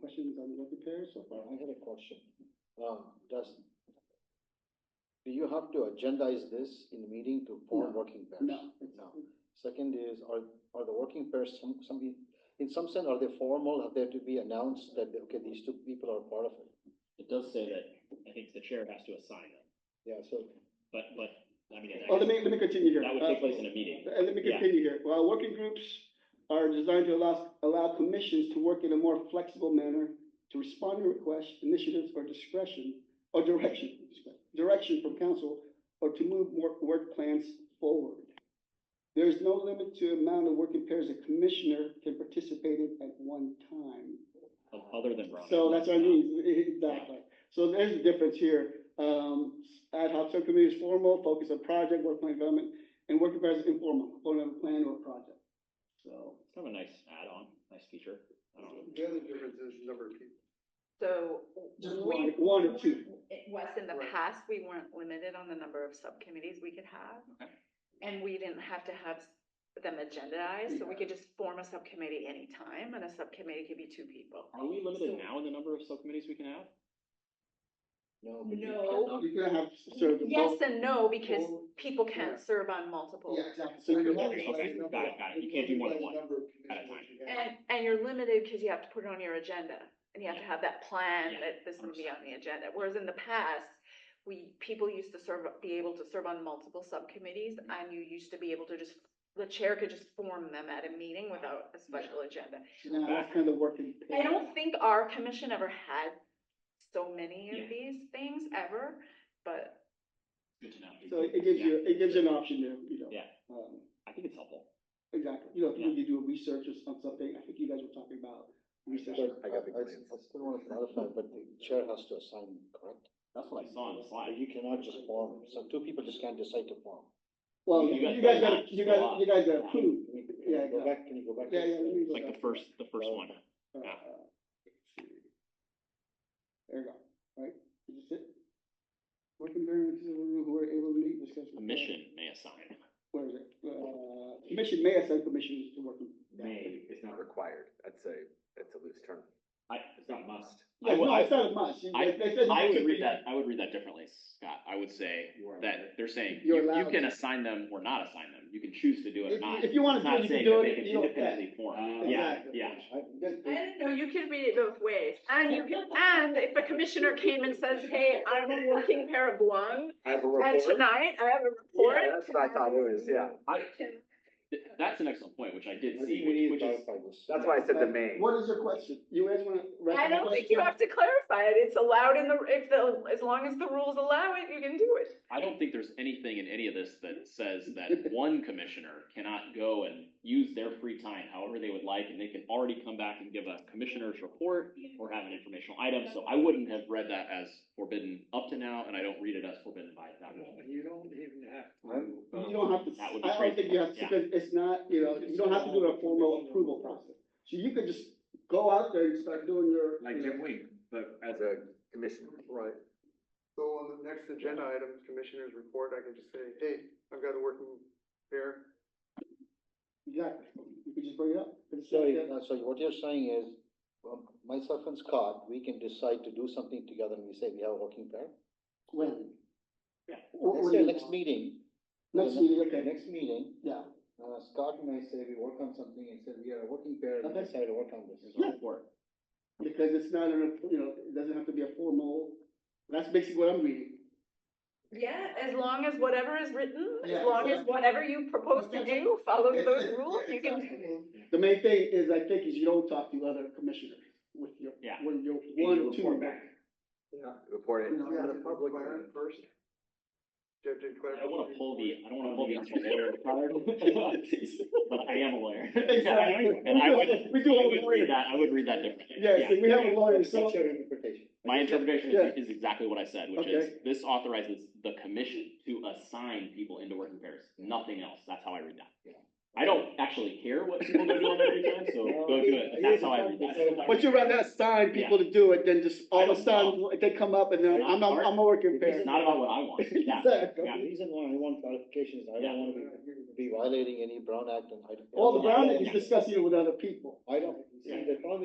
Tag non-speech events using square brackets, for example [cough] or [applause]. questions on the repairs so far? Well, I had a question. Um, does, do you have to agendize this in the meeting to form No. working pairs? No. it's- No. Second is, are, are the working pairs some, some, in some sense, are they formal? Have they to be announced that, okay, these two people are part of it? It does say that, I think the chair has to assign them, Yeah, so, but, but, I mean, I Oh, let guess me, let me continue here. that would Uh, take place in a meeting. Uh, Let me Yeah. continue here. Well, working groups are designed to allow, allow commissions to work in a more flexible manner to respond to requests, initiatives, or discretion, or direction, direction from council, or to move work, work plans forward. There is no limit to amount of working pairs a commissioner can participate in at one time. o- Other than Rhonda. So that's what I mean, e, exactly. So there's a difference here. Um, ad hoc subcommittee is formal, focus on project, work plan development, and working group is informal, component of a plan or project. So, um, It's Kind of a nice add-on, nice feature. I don't know. The other difference is number of people. So. Just we- one- one or two. It was in the Right. past, we weren't limited on the number of subcommittees we could have. Okay. And we didn't have to have them agendized, so we could just form a subcommittee anytime, and a subcommittee could be two people. Are we limited So- now in the number of subcommittees we can have? no. but you No. cannot- you can have served. in Yes both- and no, because Well, people yeah. can't serve on multiple. Yeah, exactly. So you're Okay, okay, got it, got it. You can't do more than one. at a time. And, and you're limited because you have to put it on your agenda, and you have to have that plan Yeah, that this will be on the agenda, whereas in the past, we, people used to serve, be able to serve on multiple subcommittees, Mm-hmm. and you used to be able to just, the chair could just form them at a meeting without a special agenda. Now, that's kind of working. I don't think our commission ever had so many Yeah. of these things ever, but Good to know. So it gives you, Yeah. it gives you an option there, you know. Yeah. Um, I think it's helpful. Exactly. You know, if you need to do a research or some- something, I think you guys were talking about research. But I, I got big I I plans. still want to clarify, but the chair has to assign, correct? That's what I saw on the slide. You cannot just form, so two people just can't decide to form. Well, You guys you guys gotta- got, you guys, you guys got Yeah. approved. Can you- can Yeah, you Go exactly. back, can you go back? to Yeah, the yeah, let slide? me go Like the back. first, the first one. Uh, Yeah. let's see. There you go, right? Is this it? Working variance, who are able to meet, discuss. with- Commission may assign. Where is it? Uh, commission may assign commissioners to working. May. It's not required. That's a, that's a loose term. I, it's not a must. I Yeah, would, no, I it's not as much. I- I would read that, I would read that differently, Scott. I would say You are that they're saying, You're you, you allowed can to. assign them or not assign them. You can choose to do it or If, not. you- if you want It's to do not it, you can saying do that they it, can you don't care. Oh, independently form. Uh, Yeah, Exactly. yeah. I don't know, you could read it both ways, and you can, and if a commissioner came and says, hey, I'm a working pair of Guam, I have a and tonight I have a report. Yeah, that's what I thought it was, yeah. I- Th- That's an excellent point, which I did I see, think we need which, to which is, clarify this. That's why I said the main. What is your question? You guys want to? I don't think you have to clarify it, it's allowed in the, if the, as long as the rules allow it, you can do it. I don't think there's anything in any of this that says that one commissioner cannot go and use their free time however they would like, and they can already come back and give a commissioner's report or have an informational item, so I wouldn't have read that as forbidden up to now, and I don't read it as forbidden by that rule. You don't even have I'm- to. You don't have to, That would be I don't crazy. think you have to, Yeah. because it's not, you know, you don't have to do a formal approval process. So you could just go out there and start doing your. like you know, Jim Wing, but as As a, a commissioner. Right. So on the next agenda item, commissioners report, I can just say, hey, I've got a working pair. Exactly. You could just bring it up. and So, say, uh, so what you're saying is, um, myself and Scott, we can decide to do something together and we say we have a working pair. When? Yeah. Or- or Let's say you- next meeting. Next meeting, okay, Next meeting, yeah. uh, Scott and I say we work on something and said we are a working pair and we Okay. decide to work on this. Yeah. Because it's not, an you know, it doesn't have to be a formal, that's basically what I'm reading. Yeah. As long as whatever is written, Yeah. as long as whatever you propose to do follows those rules, you can do it. Exactly. The main thing is, I think, is you don't talk to other commissioners with your, Yeah. when you're you one or two. report back. Yeah. Report it. No, we had a public Clarence First. Judge did I clarify. don't wanna pull the, I don't wanna pull the I'm a lawyer [laughs] card, but I am a lawyer. Exactly. And I would, We we do do, have I a would lawyer. read that, I would read that differently. Yeah, so we have a lawyer, so. That's your interpretation. My interpretation Yeah. is, is exactly what I said, which is, Okay. this authorizes the commission to assign people into working pairs, nothing else, that's how I read that. Yeah. I don't actually care what people go do on every time, [laughs] so go do it, but that's how I read that. But you'd rather assign people to do it than just all of a sudden, they come up and then, I'm, I'm, I'm a working It's parent. not about what I [laughs] want, yeah, Exactly. The reason why I want clarification is I Yeah. don't wanna be- be violating any Brown Act and I. don't- All the Brown is discussing it with other people. I don't, see, the problem